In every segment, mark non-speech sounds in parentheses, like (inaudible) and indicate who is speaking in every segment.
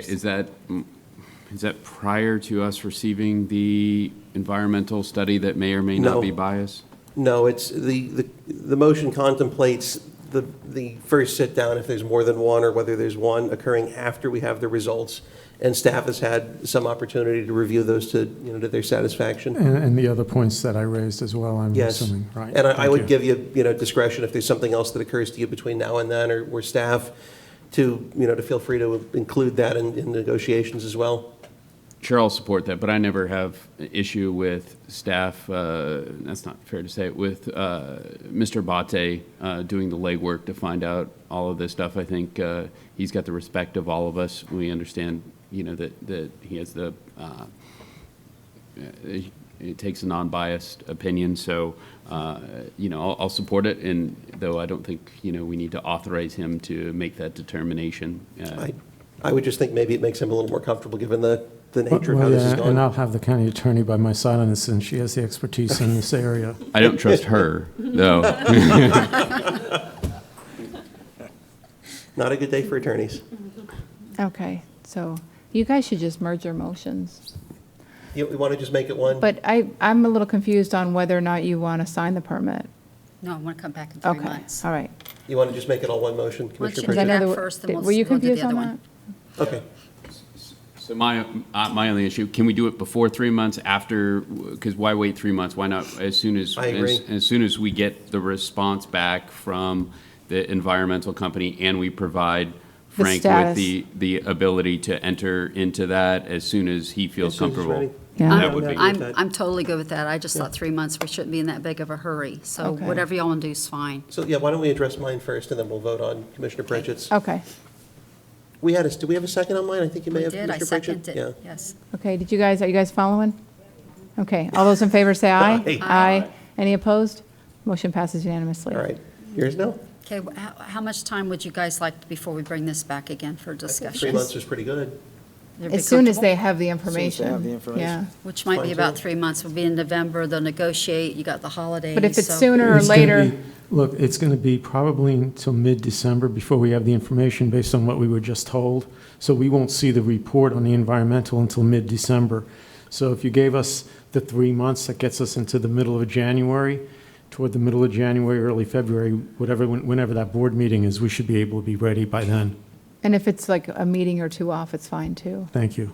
Speaker 1: Is that, is that prior to us receiving the environmental study that may or may not
Speaker 2: No.
Speaker 1: be biased?
Speaker 2: No, it's, the, the, the motion contemplates the, the first sit-down, if there's more than one, or whether there's one occurring after we have the results, and staff has had some opportunity to review those to, you know, to their satisfaction.
Speaker 3: And, and the other points that I raised as well, I'm
Speaker 2: Yes.
Speaker 3: Eh, assuming, right?
Speaker 2: And I, I
Speaker 3: Thank
Speaker 2: would
Speaker 3: you.
Speaker 2: give you, you know, discretion if there's something else that occurs to you between now and then, or, or staff, to, you know, to feel free to include that in, in negotiations as well.
Speaker 1: Sure, I'll support that, but I never have an issue with staff, uh, that's not fair to say, with uh, Mr. Bate uh, doing the legwork to find out all of this stuff. I think uh, he's got the respect of all of us. We understand, you know, that, that he has the, uh, it it takes a non-biased opinion, so, uh, you know, I'll, I'll support it, and though I don't think, you know, we need to authorize him to make that determination. uh,
Speaker 2: I, I would just think maybe it makes him a little more comfortable, given the, the nature of how
Speaker 3: Well,
Speaker 2: this is
Speaker 3: yeah,
Speaker 2: going.
Speaker 3: and I'll have the county attorney by my side on this, and she has the expertise in this area.
Speaker 1: I don't trust her, though.
Speaker 2: Not a good day for attorneys.
Speaker 4: Okay, so you guys should just merge your motions.
Speaker 2: You, we want to just make it one?
Speaker 4: But I, I'm a little confused on whether or not you want to sign the permit.
Speaker 5: No, I want to come back in three
Speaker 4: Okay,
Speaker 5: months.
Speaker 4: all right.
Speaker 2: You want to just make it all one motion, Commissioner
Speaker 5: Is
Speaker 4: Is that
Speaker 5: that
Speaker 2: Pritchett?
Speaker 5: Back
Speaker 4: another-
Speaker 5: first, then
Speaker 4: did-
Speaker 5: we'll-
Speaker 4: Were you
Speaker 5: we'll do the
Speaker 4: confused on
Speaker 5: other
Speaker 4: that?
Speaker 5: one.
Speaker 2: Okay,
Speaker 1: So my, uh, my only issue, can we do it before three months, after, because why wait three months? Why not as soon as?
Speaker 2: I agree.
Speaker 1: as- As soon as we get the response back from the environmental company and we provide
Speaker 4: The
Speaker 1: Frank with
Speaker 4: status.
Speaker 1: the, the ability to enter into that as soon as he feels
Speaker 2: As soon as it's
Speaker 1: comfortable.
Speaker 2: ready.
Speaker 4: Yeah.
Speaker 1: That would be,
Speaker 2: I'm-
Speaker 5: I'm, I'm totally good with that. I just thought three months, we shouldn't be in that big of a hurry. So
Speaker 4: Okay.
Speaker 5: whatever y'all want to do is fine.
Speaker 2: so yeah, why don't we address mine first, and then we'll vote on Commissioner Pritchett's.
Speaker 5: Oh.
Speaker 4: Okay,
Speaker 2: We had a, do we have a second on mine? I think you may
Speaker 5: We
Speaker 2: have,
Speaker 5: did, I
Speaker 2: Commissioner Pritchett.
Speaker 5: seconded it, yes.
Speaker 4: okay, did you guys, are you guys following? Okay, all those in favor say aye.
Speaker 2: Aye.
Speaker 4: Aye. Any opposed? Motion passes unanimously.
Speaker 2: Yeah, all right. Yours now?
Speaker 5: Okay, wh- how, how much time would you guys like before we bring this back again for discussion?
Speaker 2: Three months is pretty good.
Speaker 5: They'd be
Speaker 4: As soon as
Speaker 5: comfortable?
Speaker 4: they have the information.
Speaker 6: have the information.
Speaker 4: Yeah,
Speaker 5: Which might
Speaker 2: Fine,
Speaker 5: be
Speaker 2: too.
Speaker 5: about three months. We'll be in November, they'll negotiate, you got the holidays.
Speaker 4: but if it's
Speaker 5: so-
Speaker 4: sooner or
Speaker 3: It's gonna
Speaker 4: later,
Speaker 3: be- Look, it's going to be probably until mid-December before we have the information based on what we were just told. So we won't see the report on the environmental until mid-December. So if you gave us the three months, that gets us into the middle of January, toward the middle of January, early February, whatever, when- whenever that board meeting is, we should be able to be ready by then.
Speaker 4: and if it's like a meeting or two off, it's fine too,
Speaker 3: Thank you.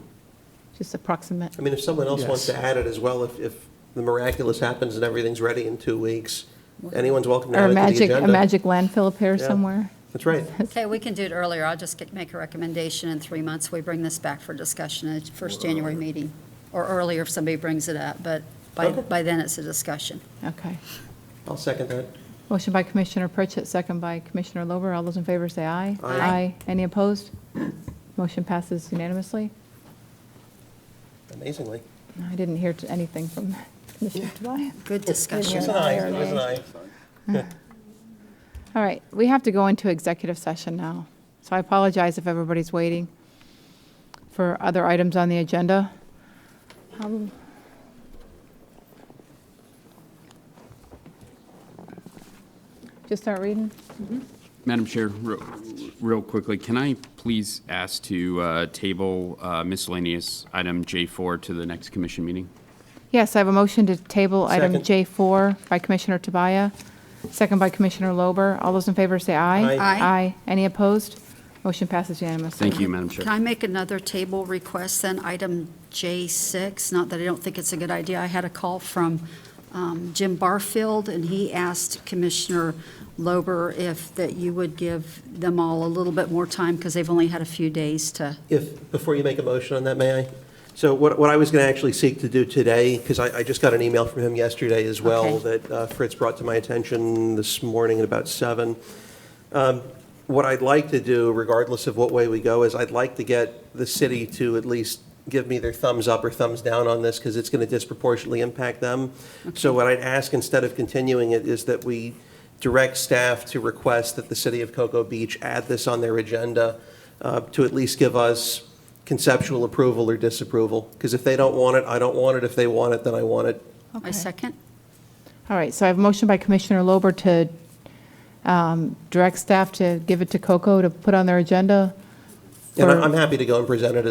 Speaker 4: just approximate.
Speaker 2: I mean, if someone else wants to
Speaker 3: Yes.
Speaker 2: add it as well, if, if the miraculous happens and everything's ready in two weeks, anyone's welcome to
Speaker 4: Or
Speaker 2: add
Speaker 4: a
Speaker 2: it to the
Speaker 4: magic,
Speaker 2: agenda.
Speaker 4: a magic landfill appears
Speaker 2: Yeah.
Speaker 4: somewhere.
Speaker 2: That's right.
Speaker 5: Okay, we can do it earlier. I'll just get, make a recommendation in three months. We bring this back for discussion at the first January meeting, or earlier if somebody brings it up, but by,
Speaker 2: Okay.
Speaker 5: by then it's a discussion.
Speaker 4: Okay.
Speaker 2: I'll second that.
Speaker 4: Motion by Commissioner Pritchett, second by Commissioner Lober. All those in favor say aye.
Speaker 2: Aye.
Speaker 4: Any opposed? Motion passes unanimously.
Speaker 2: Amazingly.
Speaker 4: I didn't hear t- anything from (laughs) Commissioner Tobias.
Speaker 5: Good discussion.
Speaker 2: It was an aye, it was an aye.
Speaker 4: All right, we have to go into executive session now. So I apologize if everybody's waiting for other items on the agenda. Um, Just start reading?
Speaker 1: Madam Chair, real real quickly, can I please ask to uh, table uh, miscellaneous item J4 to the next commission meeting?
Speaker 4: Yes, I have a motion to table item
Speaker 2: Second.
Speaker 4: J4 by Commissioner Tabaya, second by Commissioner Lober. All those in favor say aye.
Speaker 2: Aye.
Speaker 5: Aye.
Speaker 4: Any opposed? Motion passes unanimously.
Speaker 1: Thank you, Madam Chair.
Speaker 5: Can I make another table request then, item J6? Not that I don't think it's a good idea. I had a call from um, Jim Barfield, and he asked Commissioner Lober if, that you would give them all a little bit more time, because they've only had a few days to
Speaker 2: If, before you make a motion on that, may I? So what, what I was going to actually seek to do today, because I, I just got an email from him yesterday as well,
Speaker 5: Okay.
Speaker 2: that uh, Fritz brought to my attention this morning at about seven. Um, What I'd like to do, regardless of what way we go, is I'd like to get the city to at least give me their thumbs up or thumbs down on this, because it's going to disproportionately impact them. So what I'd ask, instead of continuing it, is that we direct staff to request that the city of Cocoa Beach add this on their agenda uh, to at least give us conceptual approval or disapproval. Because if they don't want it, I don't want it. If they want it, then I want it.
Speaker 5: I second.
Speaker 4: All right, so I have a motion by Commissioner Lober to um, direct staff to give it to Coco to put on their agenda
Speaker 2: And I-
Speaker 3: for-
Speaker 2: I'm happy to go and present it